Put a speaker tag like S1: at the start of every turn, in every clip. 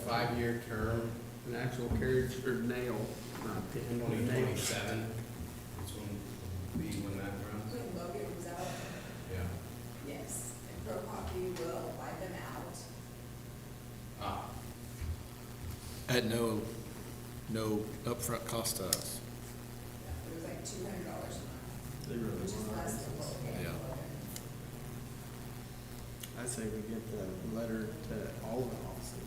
S1: five-year term,
S2: An actual carriage or nail, not pin, but
S1: twenty
S2: nail.
S1: twenty-seven. This one, be when that runs,
S3: When Logan was out,
S1: yeah.
S3: yes, and Pro Hockey will buy them out.
S1: Ah,
S4: At no, no upfront cost to us.
S3: It was like two hundred dollars a month,
S2: They really
S3: which is
S2: want
S3: less than what we paid
S4: Yeah.
S3: Logan.
S2: I say we get the letter to all of the offices.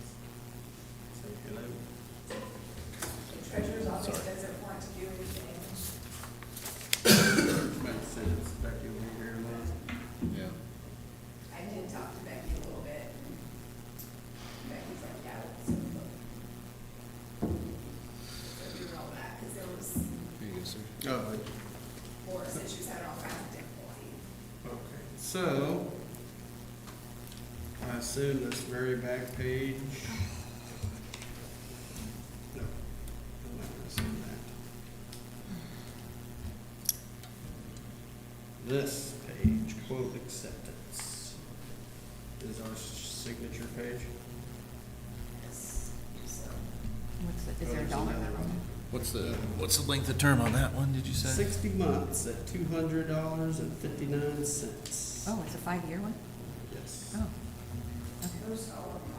S2: Say hello.
S3: The treasurer's office doesn't want to do anything.
S2: Makes sense, Becky will be here in a minute.
S4: Yeah.
S3: I did talk to Becky a little bit. and Becky's like, yeah, it's a book. So we roll back, because there was
S4: Here you go, sir.
S2: Oh, but
S3: more, since she was having all kinds of difficulty.
S2: Okay, so, I assume this very back page. No, I'm not gonna assume that. This page, quote acceptance, is our signature page.
S3: Yes, so.
S5: What's
S2: Oh,
S5: the, is there a
S2: there's
S5: dollar
S2: another
S5: amount?
S2: one.
S4: What's the, what's the length of term on that one, did you say?
S2: Sixty months at two hundred dollars and fifty-nine cents.
S5: Oh, it's a five-year one?
S2: Yes.
S5: Oh. Okay.
S3: Those all of them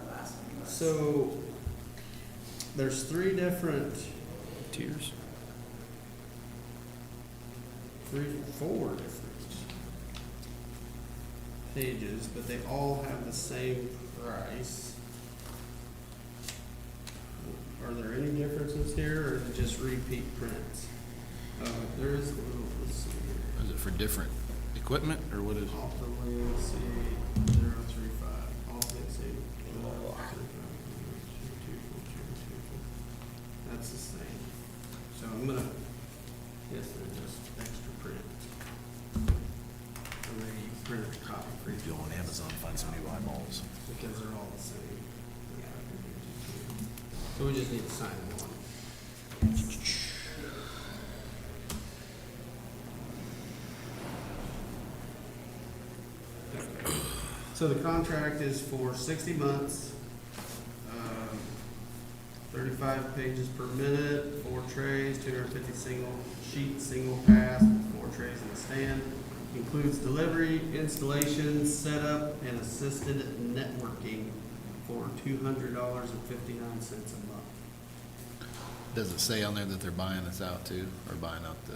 S3: are, the last one was.
S2: So, there's three different
S4: Tiers.
S2: three, four different pages, but they all have the same price. Are there any differences here, or is it just repeat prints? Uh, there is, well, let's see here.
S4: Is it for different equipment, or what is?
S2: Off the land, let's see, zero, three, five, off the sea. That's the same. So I'm gonna, yes, they're just extra print. Or maybe you print a copy for each.
S4: on Amazon, find some new eyeballs.
S2: Because they're all the same. So we just need to sign one. So the contract is for sixty months, um, thirty-five pages per minute, four trays, two hundred fifty single sheet, single pass, with four trays in the stand. Includes delivery, installation, setup, and assisted networking for two hundred dollars and fifty-nine cents a month.
S4: Does it say on there that they're buying us out too, or buying out the,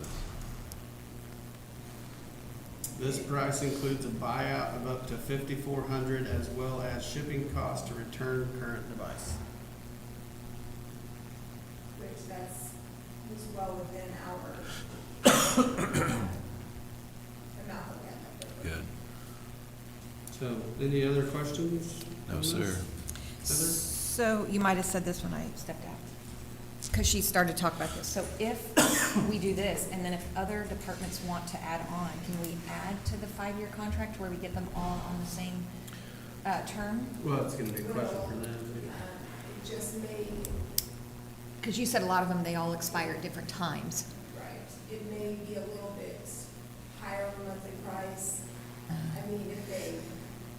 S2: This price includes a buyout of up to fifty-four hundred as well as shipping costs to return current device.
S3: Which that's, was well within our. Amount that we had left over.
S4: good?
S2: So, any other questions?
S4: No,
S2: on this?
S4: sir.
S2: Heather?
S5: So you might have said this when I stepped out, because she started to talk about this. So if we do this, and then if other departments want to add on, can we add to the five-year contract where we get them all on the same uh, term?
S2: Well, it's gonna be a question for them.
S3: Um, It just may,
S5: Because you said a lot of them, they all expire at different times.
S3: right, it may be a little bit higher on monthly price. I mean, if they,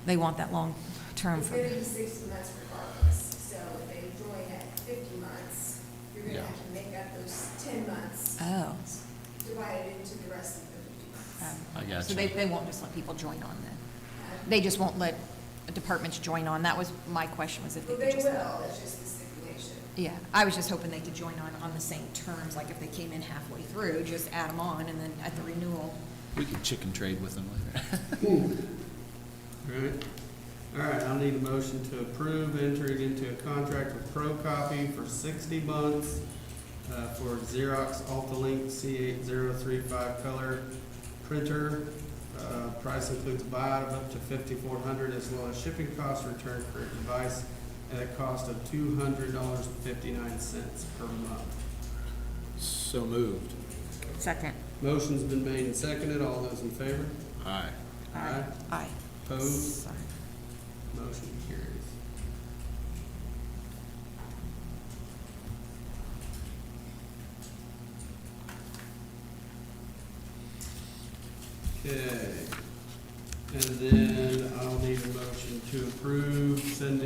S5: They want that long term
S3: it's
S5: for
S3: gonna be sixty months regardless, so if they join at fifty months, you're gonna
S4: Yeah.
S3: have to make up those ten months,
S5: Oh.
S3: divided into the rest of the fifty months.
S5: um,
S4: I got
S5: So
S4: you.
S5: they, they won't just let people join on then?
S3: Um,
S5: They just won't let departments join on? That was my question, was if they
S3: Well,
S5: could
S3: they
S5: just.
S3: will, it's just the stipulation.
S5: Yeah, I was just hoping they could join on, on the same terms, like if they came in halfway through, just add them on, and then at the renewal.
S4: We could chicken trade with them later.
S2: Alright, alright, I'll need a motion to approve entering into a contract with Pro Copy for sixty months uh, for Xerox Altalink C eight zero three five color printer. Uh, price includes a buyout of up to fifty-four hundred as well as shipping costs returned for a device at a cost of two hundred dollars and fifty-nine cents per month.
S4: So moved.
S5: Second.
S2: Motion's been made and seconded, all those in favor?
S4: Aye.
S2: Aye.
S5: Aye.
S2: Opposed? Motion carries. Okay, and then I'll need a motion to approve sending